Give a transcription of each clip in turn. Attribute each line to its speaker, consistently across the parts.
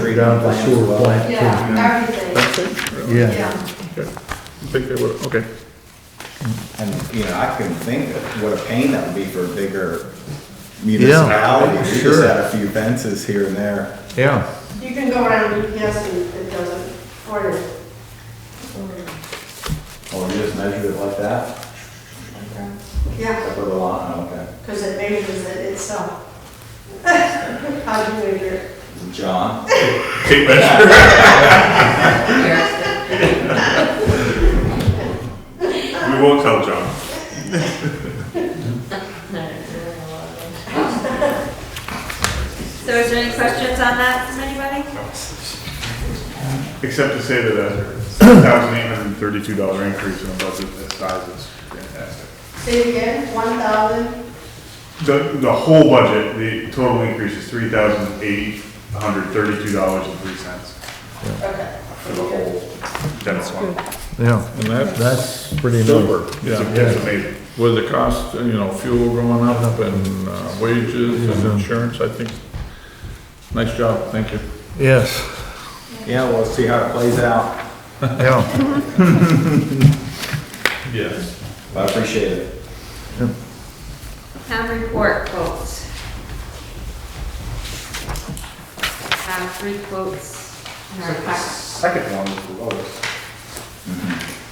Speaker 1: down the sewer plant.
Speaker 2: Yeah, everything,
Speaker 3: That's it?
Speaker 1: Yeah,
Speaker 2: yeah.
Speaker 3: I think they would, okay.
Speaker 4: And, you know, I couldn't think of what a pain that would be for a bigger municipality. We just
Speaker 1: sure.
Speaker 4: had a few fences here and there.
Speaker 1: yeah.
Speaker 2: You can go around UPS and it doesn't order.
Speaker 4: Oh, you just measured it like that?
Speaker 2: Yeah,
Speaker 4: Up with a lot, Oh, okay.
Speaker 2: because it measures it itself. How do you measure it?
Speaker 4: Is it John?
Speaker 3: Tape measure. We won't tell John.
Speaker 5: So is there any questions on that from anybody?
Speaker 3: Except to say that a thousand eight hundred and thirty-two dollar increase in a budget this size is fantastic.
Speaker 2: Say it again, one thousand,
Speaker 3: The, the whole budget, the total increase is three thousand eight hundred thirty-two dollars and three cents
Speaker 2: okay.
Speaker 3: for the whole dental one.
Speaker 1: Yeah,
Speaker 6: And that's
Speaker 1: that's pretty
Speaker 6: silver,
Speaker 1: nice.
Speaker 3: It's
Speaker 6: yeah,
Speaker 3: it's amazing.
Speaker 6: with the cost, you know, fuel going up and uh, wages and insurance, I think, nice job, thank you.
Speaker 1: Yes,
Speaker 4: Yeah, we'll see how it plays out.
Speaker 1: yeah,
Speaker 3: Yes.
Speaker 4: I appreciate it.
Speaker 5: Town report quotes. Have three quotes in our packet.
Speaker 3: Second one is the lowest.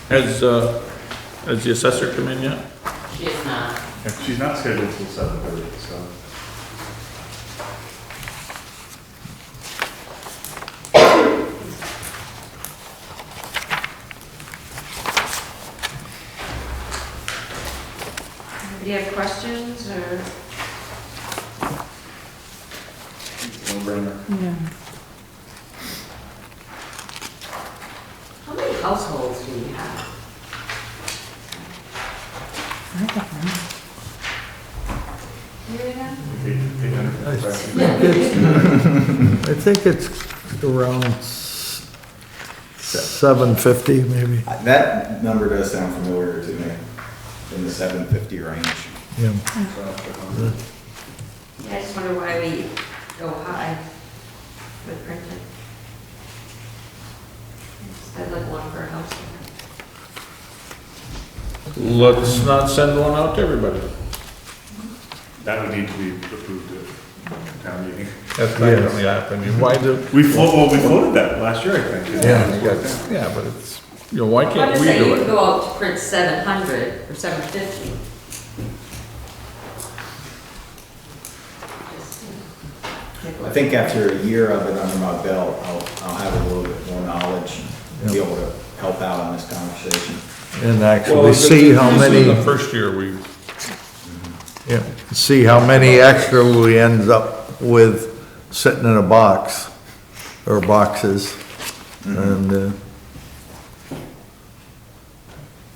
Speaker 6: Has, uh, has the assessor come in yet?
Speaker 7: She is not.
Speaker 3: And she's not scheduled till seven thirty, so.
Speaker 5: Do you have questions or?
Speaker 7: How many households do you have?
Speaker 1: I think it's around s- 750 maybe,
Speaker 4: That number does sound familiar to me, in the seven fifty range.
Speaker 1: yeah.
Speaker 5: Yeah, I just wonder why we go high with printing. Instead of one per house.
Speaker 6: Let's not send one out to everybody.
Speaker 3: That would need to be approved at town meeting.
Speaker 6: That's not gonna happen. Why do,
Speaker 3: We floated, well, we floated that last year, I think.
Speaker 6: yeah, but it's, you know, why
Speaker 7: I'm
Speaker 6: can't
Speaker 7: just
Speaker 6: we
Speaker 7: saying, you
Speaker 6: do
Speaker 7: could
Speaker 6: it?
Speaker 7: go out to print seven hundred or seven fifty.
Speaker 4: I think after a year of it under my belt, I'll, I'll have a little bit more knowledge and be able to help out on this conversation.
Speaker 1: And actually see how
Speaker 6: This is the
Speaker 1: many,
Speaker 6: first year we,
Speaker 1: yeah, see how many extra we ends up with sitting in a box, or boxes, and, uh,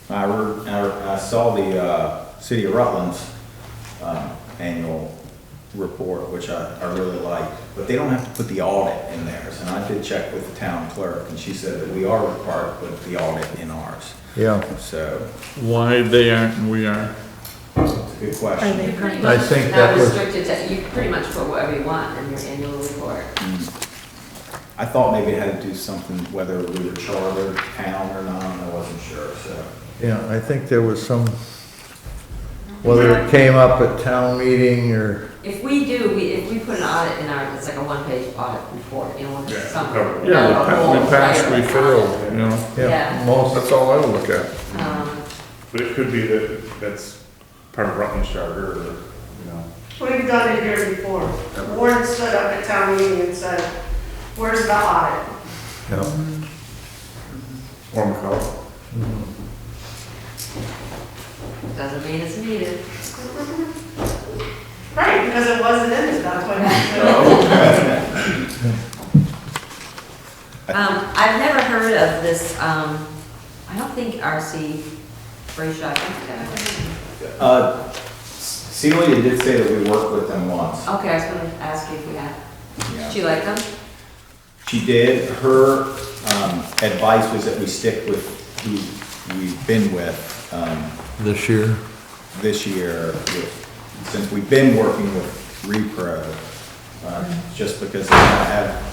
Speaker 4: I, re- I re- I saw the, uh, City of Rutland's, um, annual report, which I, I really like, but they don't have to put the audit in theirs, and I did check with the town clerk, and she said that we are required to put the audit in ours.
Speaker 1: yeah.
Speaker 4: So,
Speaker 6: why they aren't and we are.
Speaker 4: it's a good question.
Speaker 7: You're pretty
Speaker 1: I
Speaker 7: much
Speaker 1: think that
Speaker 7: not
Speaker 1: was-
Speaker 7: restricted to, you can pretty much put whatever you want in your annual report.
Speaker 4: Mm. I thought maybe it had to do something, whether we were charter town or not, I wasn't sure, so.
Speaker 1: Yeah, I think there was some, whether it came up at town meeting or,
Speaker 7: If we do, we, if we put an audit in our, it's like a one-page audit report, you know,
Speaker 3: Yeah,
Speaker 7: with
Speaker 3: cover
Speaker 7: some.
Speaker 3: it.
Speaker 6: Yeah,
Speaker 7: not a whole
Speaker 6: we passed,
Speaker 7: entire
Speaker 6: we failed,
Speaker 7: audit.
Speaker 6: you know?
Speaker 1: yeah,
Speaker 7: Yeah.
Speaker 1: most,
Speaker 6: That's all I look at.
Speaker 7: Um,
Speaker 3: But it could be that that's part of Rutland's charter, or, you know.
Speaker 2: We've done it here before. Warren stood up at town meeting and said, where's the audit?
Speaker 1: yeah.
Speaker 3: Or McCall.
Speaker 7: Doesn't mean it's needed.
Speaker 2: Right, because it wasn't in it, that's what happened.
Speaker 7: Um, I've never heard of this, um, I don't think RC Brayshaw, I think that was-
Speaker 4: Uh, Celia did say that we worked with them once.
Speaker 7: Okay, I was gonna ask you if we had, did
Speaker 4: Yeah.
Speaker 7: you like them?
Speaker 4: She did, her um, advice was that we stick with who we've been with um,
Speaker 1: This year,
Speaker 4: this year, with- since we've been working with Repro, uh, just because they don't have